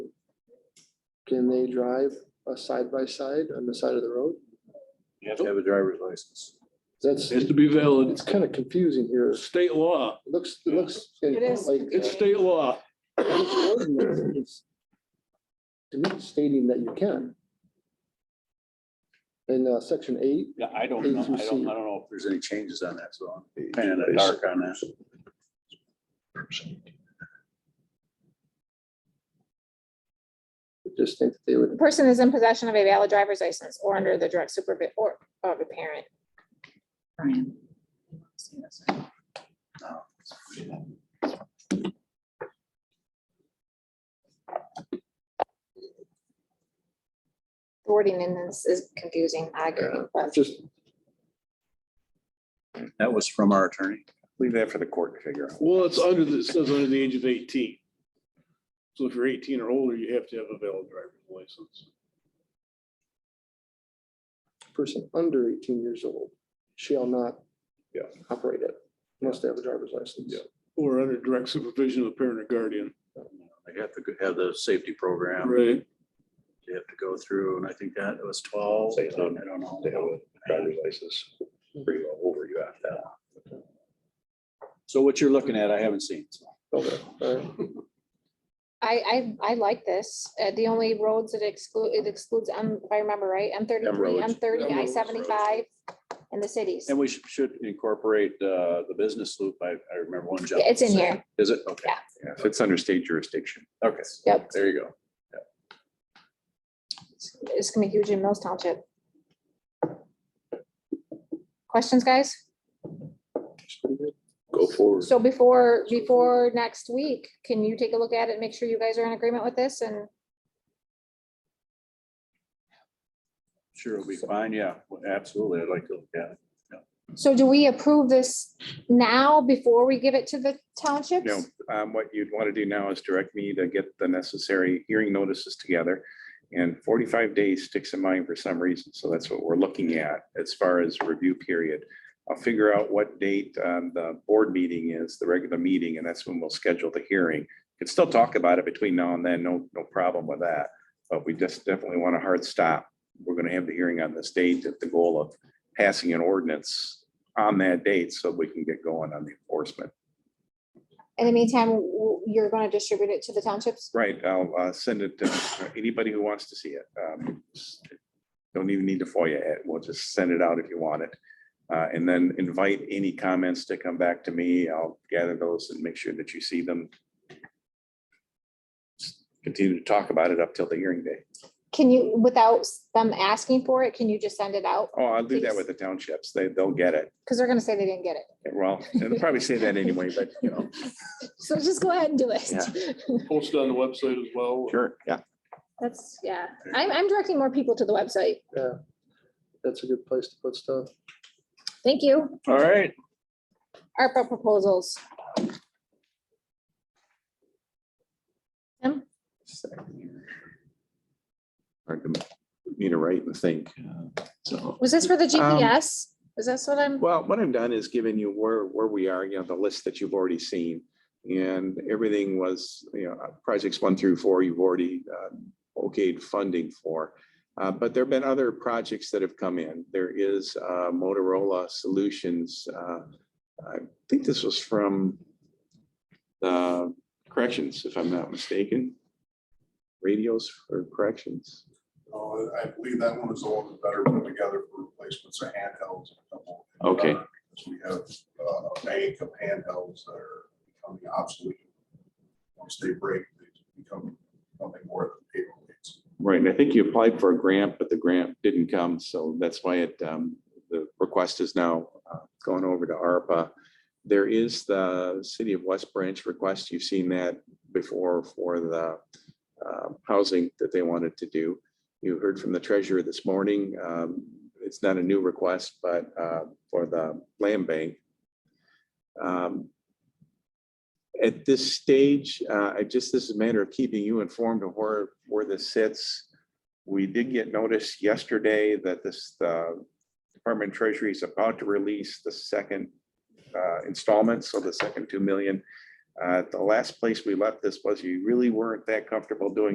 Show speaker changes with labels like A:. A: Can they drive a side by side on the side of the road?
B: You have to have a driver's license.
A: That's,
C: has to be valid.
A: it's kind of confusing here. It
C: State law.
A: looks, it looks.
D: It is.
A: like-
C: It's state law.
A: It's To me, it's stating that you can. In uh, section eight,
B: Yeah, I don't know. I don't, I don't
A: ATC.
B: know if there's any changes on that, so I'm kind of in the dark on that.
A: I just think that they would
D: The person is in possession of a valid driver's license or under the direct supervision or of a parent.
E: Brian.
D: The Wording in this is confusing, I agree, but
A: just,
B: That was from our attorney.
F: Leave that for the court to figure out.
C: Well, it's under, the- it says under the age of eighteen. So if you're eighteen or older, you have to have a valid driver's license.
A: person under eighteen years old shall not
C: Yeah.
A: operate it, must have a driver's license.
C: Yeah. Or under direct supervision of a parent or guardian.
B: They have to have the safety program.
C: Right.
B: They have to go through, and I think that was twelve. I
F: Say, um,
B: don't know.
F: They have a driver's license, pretty well over you after that.
B: So what you're looking at, I haven't seen. so.
A: Okay, all right.
D: I, I, I like this. Uh, the only roads that exclude, it excludes, um, if I remember right, M thirty-three,
B: roads.
D: M thirty,
B: M
D: I
B: roads, roads.
D: seventy-five and the cities.
B: And we should- should incorporate uh, the business loop. I, I remember one job.
D: Yeah, It's in here.
B: Is it? Okay.
D: Yeah.
F: Yeah, if it's under state jurisdiction.
B: Okay.
D: Yep.
B: There you go.
D: It's gonna be huge in Mills Township. Questions, guys?
F: Go forward.
D: So before, before next week, can you take a look at it, make sure you guys are in agreement with this and
B: Sure, it'll be fine. Yeah, absolutely. I'd like to, yeah.
D: So do we approve this now before we give it to the townships?
F: No, um, what you'd want to do now is direct me to get the necessary hearing notices together. And forty-five days sticks in mind for some reason, so that's what we're looking at as far as review period. I'll figure out what date um, the board meeting is, the regular meeting, and that's when we'll schedule the hearing. Can still talk about it between now and then, no, no problem with that, but we just definitely want a hard stop. We're gonna have the hearing on this date at the goal of passing an ordinance on that date so we can get going on the enforcement.
D: In the meantime, w- you're gonna distribute it to the townships?
F: Right, I'll uh, send it to anybody who wants to see it. Um, Don't even need to FOIA it. We'll just send it out if you want it. Uh, And then invite any comments to come back to me. I'll gather those and make sure that you see them. Just Continue to talk about it up till the hearing day.
D: Can you, without s- them asking for it, can you just send it out?
F: Oh, I'll do that with the townships. They, they'll get it.
D: Because they're gonna say they didn't get it.
F: Well, they'll probably say that anyway, but you know.
D: So just go ahead and do it.
C: Posted on the website as well.
F: Sure, yeah.
D: That's, yeah. I'm, I'm directing more people to the website.
A: That's a good place to put stuff.
D: Thank you.
B: All right.
D: ARPA proposals. Tim?
F: Hard to um, Need to write and think. uh, So.
D: Was this for the
F: Um,
D: GPS? Is this what I'm,
F: Well, what I've done is given you where, where we are, you know, the list that you've already seen. And everything was, you know, uh, projects one through four, you've already um, okayed funding for. Uh, But there have been other projects that have come in. There is uh, Motorola Solutions. uh, I think this was from uh, corrections, if I'm not mistaken. Radios for corrections.
G: Uh, I believe that one is the one that's better put together for replacements of handhelds. and a couple of-
F: Okay.
G: Because we have uh, a bank of handhelds that are becoming obsolete. Once they break, they become nothing more than paperweights.
F: Right, and I think you applied for a grant, but the grant didn't come, so that's why it, um, the request is now uh, going over to ARPA. There is the City of West Branch request, you've seen that before for the uh, housing that they wanted to do. You heard from the treasurer this morning, um, it's not a new request, but uh, for the land bank. Um, at this stage, uh, I just, this is a matter of keeping you informed of where, where this sits. We did get notice yesterday that this, the Department of Treasury is about to release the second uh, installment, so the second two million. Uh, The last place we left this was you really weren't that comfortable doing